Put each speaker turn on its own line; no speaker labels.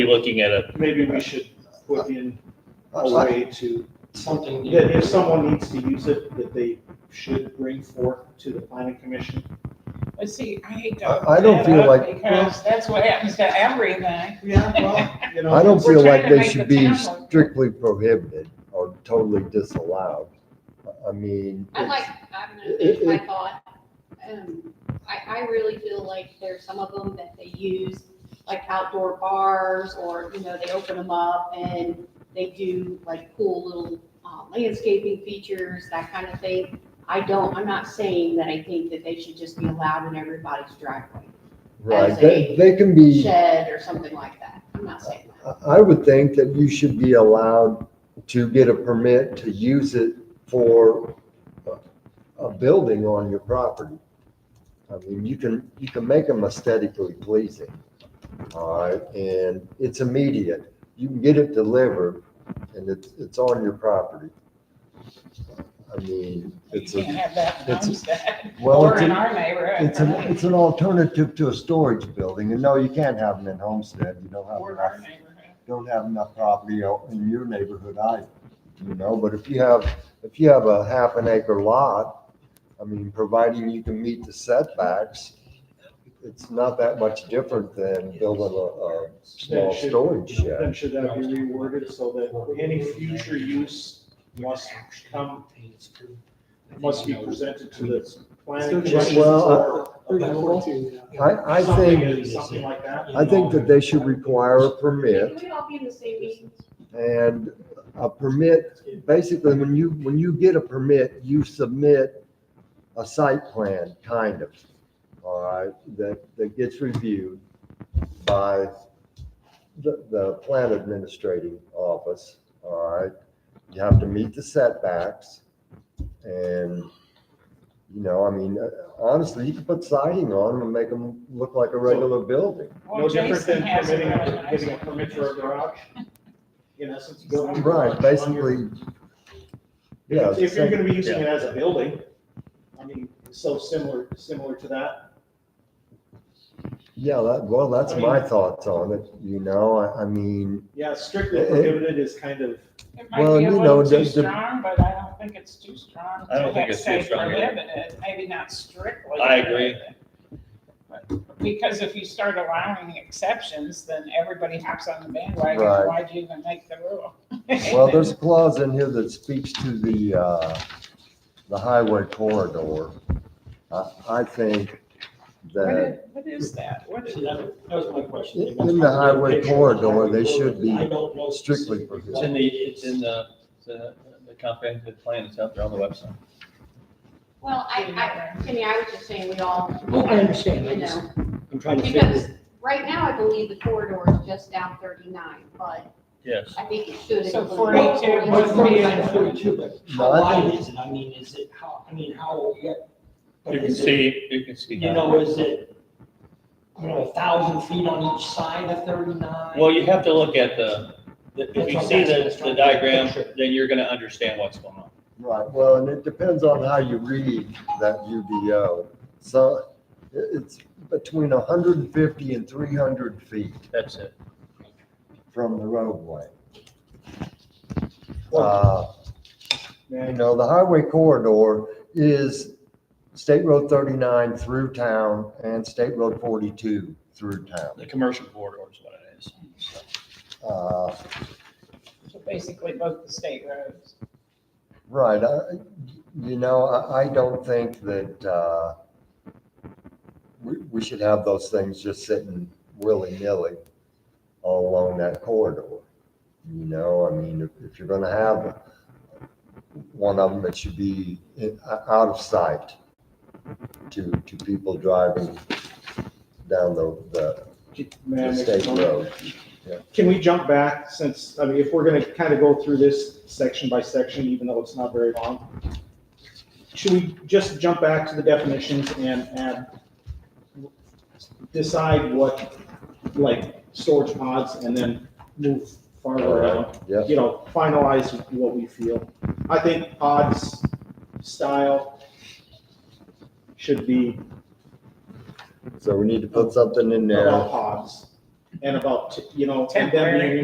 be looking at a,
Maybe we should put in a
Well,
way to,
something. you-
that if someone needs to use it, that they should bring forth to the planning commission.
But see, I hate to.
I- I don't
open
feel
that up
like-
Because that's what happens to everything.
Yeah, well, you know.
I don't
it's-
We're
feel
trying
like
to
they
make
should
the
be
town look-
strictly prohibited or totally disallowed. I mean,
I like, I'm
it-
gonna finish my
it-
thought. Um, I, I really feel like there's some of them that they use, like outdoor bars, or, you know, they open them up and they do like cool little uh, landscaping features, that kind of thing. I don't, I'm not saying that I think that they should just be allowed in everybody's driveway,
right,
as
they,
a
they can be.
shed or something like that. I'm not saying that.
I- I would think that you should be allowed to get a permit to use it for a- a building on your property. I mean, you can, you can make them aesthetically pleasing. All right, and it's immediate. You can get it delivered and it's, it's on your property. I mean,
You
it's a,
can't have that in
it's a-
Homestead
well,
or
it's
in
an,
our neighborhood.
it's an,
right?
it's an alternative to a storage building. And no, you can't have them in Homestead. You don't have
Or in
enough
our neighborhood.
don't have enough property out in your neighborhood either, you know, but if you have, if you have a half an acre lot, I mean, providing you can meet the setbacks, it's not that much different than building a, a small
That should-
storage shed.
Then should that be reworded so that any future use must come, must be presented to the planning commission?
Well, uh, I, I think,
Something- Something like that.
I think that they should require a permit
Can we all be in the same meeting?
and a permit, basically, when you, when you get a permit, you submit a site plan, kind of, all right, that, that gets reviewed by the, the plan administrating office, all right? You have to meet the setbacks and, you know, I mean, honestly, you can put siding on them and make them look like a regular building.
Well,
No different
Jason
than
has a
permitting,
really
a-
nice
getting a
one.
permit for a garage. In essence, building. a garage
Right,
on your-
basically, yeah.
If if
same-
you're gonna be using it as a building, I mean, so similar, similar to that.
Yeah, that, well, that's
I
my
mean-
thoughts on it, you know, I, I mean,
Yeah, strictly
It- it-
prohibited is kind of,
It might
Well,
be
you
a
know,
little
the-
too
the-
strong, but I don't think it's too strong.
I don't
to
think it's too
say
strong either.
prohibited, Maybe not strictly.
I agree.
prohibited. But- Because if you start allowing exceptions, then everybody hops on the bandwagon.
Right.
Why'd you even make the rule?
well, there's a clause in here that speaks to the, uh, the highway corridor. I, I think
What
that,
is, what is that? What is that?
That was my question.
In- in the highway corridor, they should be
I don't know
strictly
specifically.
prohibited.
it's in the, it's in the, the the comprehensive plan, it's out there on the website.
Well, I, I, Kenny, I was just saying we all.
Oh,
Well, Oh, I understand, I
You
just,
know,
I'm trying to figure.
because right now I believe the corridor is just down thirty-nine, but
Yes.
I think it should.
So
include-
42
Well,
must be
forty-nine, forty-two, but
No,
how
I think-
wide is it? I mean, is it, how, I mean, how, yeah. but
You can
is it-
see, you can see.
You know, is it, you know, a thousand feet on each side of thirty-nine?
Well, you have to look at the, the- if you see the, the diagram, then you're gonna understand what's going on.
right, well, and it depends on how you read that UDO. So it- it's between hundred and fifty and three hundred feet
That's it.
from the roadway. Uh, You
man,
know, the highway corridor is State Road thirty-nine through town and State Road forty-two through town.
The commercial corridor is what it is.
Uh,
So Basically, both the state roads.
Right, I- you know, I, I don't think that, uh, we, we should have those things just sitting willy-nilly all along that corridor. You know, I mean, if, if you're gonna have one of them, it should be i- out of sight to, to people driving down the, the-
may I
the
make a
state
comment?
road.
Can we jump back since, I mean, if we're gonna kind of go through this section by section, even though it's not very long? Should we just jump back to the definitions and add, decide what, like, storage pods and then move farther around?
Yeah,
You know, finalize what we feel. I think pods style should be
so we need to put something in there.
about pods.
and about, you know, and them being
Temporary.